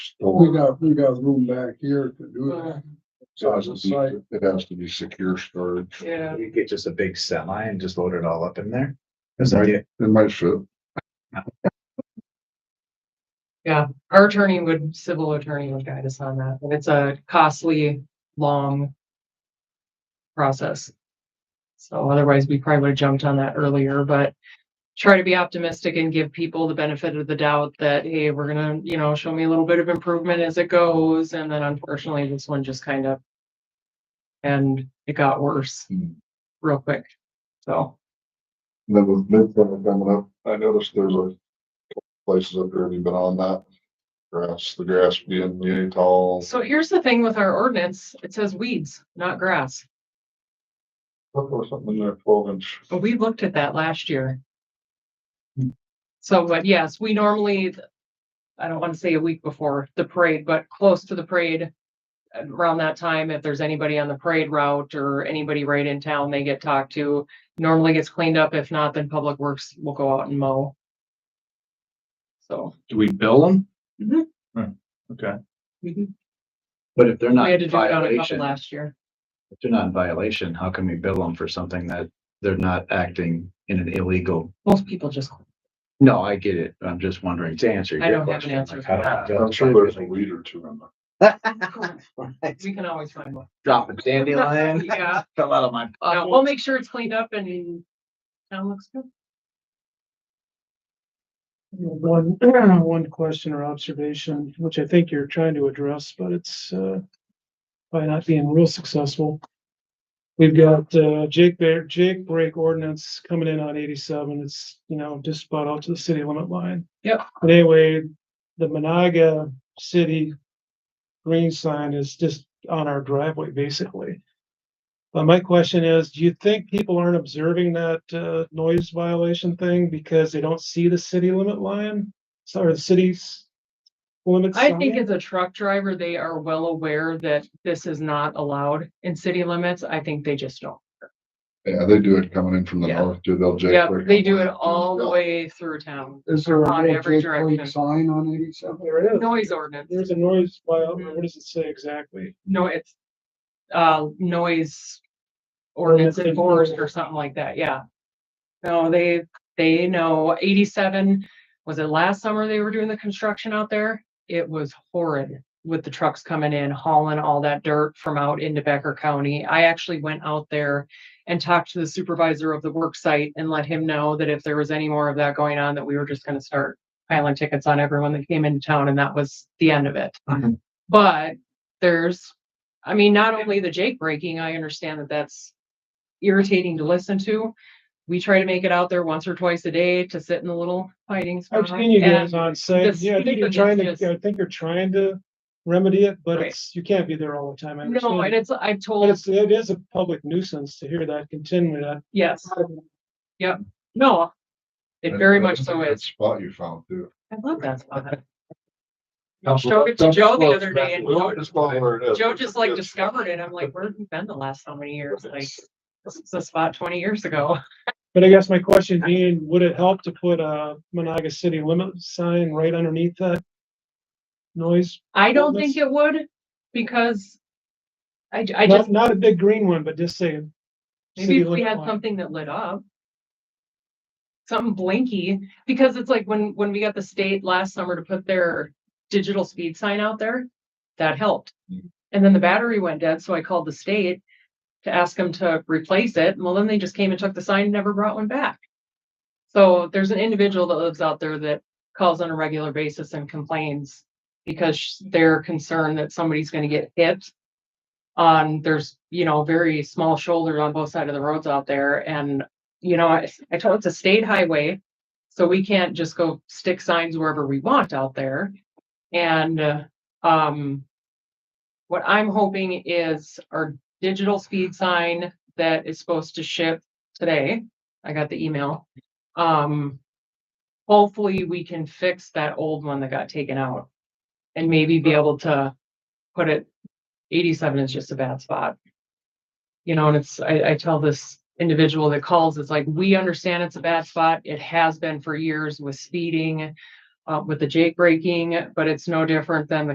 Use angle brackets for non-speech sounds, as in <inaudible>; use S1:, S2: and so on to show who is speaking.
S1: We
S2: store.
S1: got, we got room back here to do
S3: Uh,
S1: that.
S2: It has to be, it has to be secure storage.
S3: Yeah.
S4: You get just a big semi and just load it all up in there. That's the idea.
S2: It might fit.
S3: Our attorney would, civil attorney would guide us on that. And it's a costly, long process. So otherwise, we probably would have jumped on that earlier, but try to be optimistic and give people the benefit of the doubt that, hey, we're gonna, you know, show me a little bit of improvement as it goes. And then unfortunately, this one just kind of and it got worse
S2: Hmm.
S3: real quick. So,
S2: And Then with midsummer coming up, I noticed there's a places up there, have you been on that? Grass, the grass being really tall.
S3: so here's the thing with our ordinance. It says weeds, not grass.
S2: Look, there was something in there, twelve inch.
S3: But we looked at that last year.
S4: Hmm.
S3: So, but yes, we normally, I don't want to say a week before the parade, but close to the parade. Around that time, if there's anybody on the parade route or anybody right in town, they get talked to. Normally gets cleaned up. If not, then Public Works will go out and mow. So
S5: Do we bill them?
S3: Mhm.
S5: Hmm, Okay,
S3: we
S4: But if they're not
S3: Mm-hmm. had to
S4: in
S3: do it on a couple
S4: violation, if
S3: last year.
S4: they're not in violation, how can we bill them for something that they're not acting in an illegal?
S3: Most people just,
S4: No, I get it. I'm just wondering to answer
S3: I don't
S4: your
S3: have an
S4: question.
S3: answer
S4: like,
S3: for
S4: how do we
S3: that.
S4: bill
S2: I'm sure there's a
S4: somebody?
S2: weed or two in there.
S3: we can always find one.
S4: Drop a dandelion, <laughs>
S3: Yeah.
S4: fell out of my
S3: Uh, we'll
S4: pocket.
S3: make sure it's cleaned up and town looks good.
S6: One, <clears throat> one question or observation, which I think you're trying to address, but it's, uh, by not being real successful. We've got, uh, Jake Bear, Jake Break ordinance coming in on eighty-seven. It's, you know, just about out to the city limit line.
S3: Yep.
S6: But anyway, the Monaga City green sign is just on our driveway, basically. But my question is, do you think people aren't observing that uh, noise violation thing because they don't see the city limit line? Sorry, the city's limits.
S3: I think as a truck driver, they are well aware that this is not allowed in city limits. I think they just don't.
S2: Yeah, they do it coming in from the
S3: Yeah.
S2: north, too. They'll jake.
S3: Yeah,
S2: right
S3: they
S2: up
S3: do
S2: there.
S3: it all the way through town.
S1: Is there
S3: On
S1: a
S3: every
S1: Jake Blake
S3: direction.
S1: sign on eighty-seven?
S6: There it is.
S3: Noise ordinance.
S6: There's a noise, viol- what does it say exactly?
S3: No, it's uh, noise ordinance
S6: Ordinance
S3: enforced or
S6: enforced.
S3: something like that. Yeah. No, they, they know eighty-seven, was it last summer they were doing the construction out there? It was horrid with the trucks coming in hauling all that dirt from out into Becker County. I actually went out there and talked to the supervisor of the work site and let him know that if there was any more of that going on, that we were just gonna start piling tickets on everyone that came into town and that was the end of it.
S6: Mm-hmm.
S4: Mhm.
S3: But there's, I mean, not only the Jake breaking, I understand that that's irritating to listen to. We try to make it out there once or twice a day to sit in the little fighting spot.
S6: I've seen you
S3: Uh-huh. And
S6: guys on site.
S3: the
S6: Yeah, I think
S3: speeding
S6: you're trying
S3: is just-
S6: to, I think you're trying to remedy it, but
S3: Right.
S6: it's, you can't be there all the time. I
S3: No, and
S6: understand.
S3: it's, I've
S6: But
S3: told,
S6: it's, it is a public nuisance to hear that continually. That
S3: yes, no, it very
S2: That-
S3: much
S2: that's a
S3: so
S2: good
S3: is.
S2: Spot you found too.
S3: I love that spot. I showed it to Joe the other day and Joe- Joe just like discovered it. I'm like, where have you been the last so many years? Like, this is a spot twenty years ago.
S6: But I guess my question being, would it help to put a Monaga city limit sign right underneath that? Noise,
S3: I don't
S6: Goodness.
S3: think it would because I, I just,
S6: not, not a big green one, but just say.
S3: maybe
S6: city
S3: if we
S6: limit
S3: had
S6: line.
S3: something that lit up. Something blinky, because it's like when, when we got the state last summer to put their digital speed sign out there, that helped. And then the battery went dead, so I called the state to ask them to replace it. Well, then they just came and took the sign and never brought one back. So there's an individual that lives out there that calls on a regular basis and complains because sh- they're concerned that somebody's gonna get hit. On, Um, there's, you know, very small shoulders on both sides of the roads out there and, you know, I, I told it's a state highway. So we can't just go stick signs wherever we want out there. And, uh, um, what I'm hoping is our digital speed sign that is supposed to ship today. I got the email. Um, hopefully we can fix that old one that got taken out and maybe be able to put it, eighty-seven is just a bad spot. You know, and it's, I, I tell this individual that calls, it's like, we understand it's a bad spot. It has been for years with speeding, uh, with the Jake braking, but it's no different than the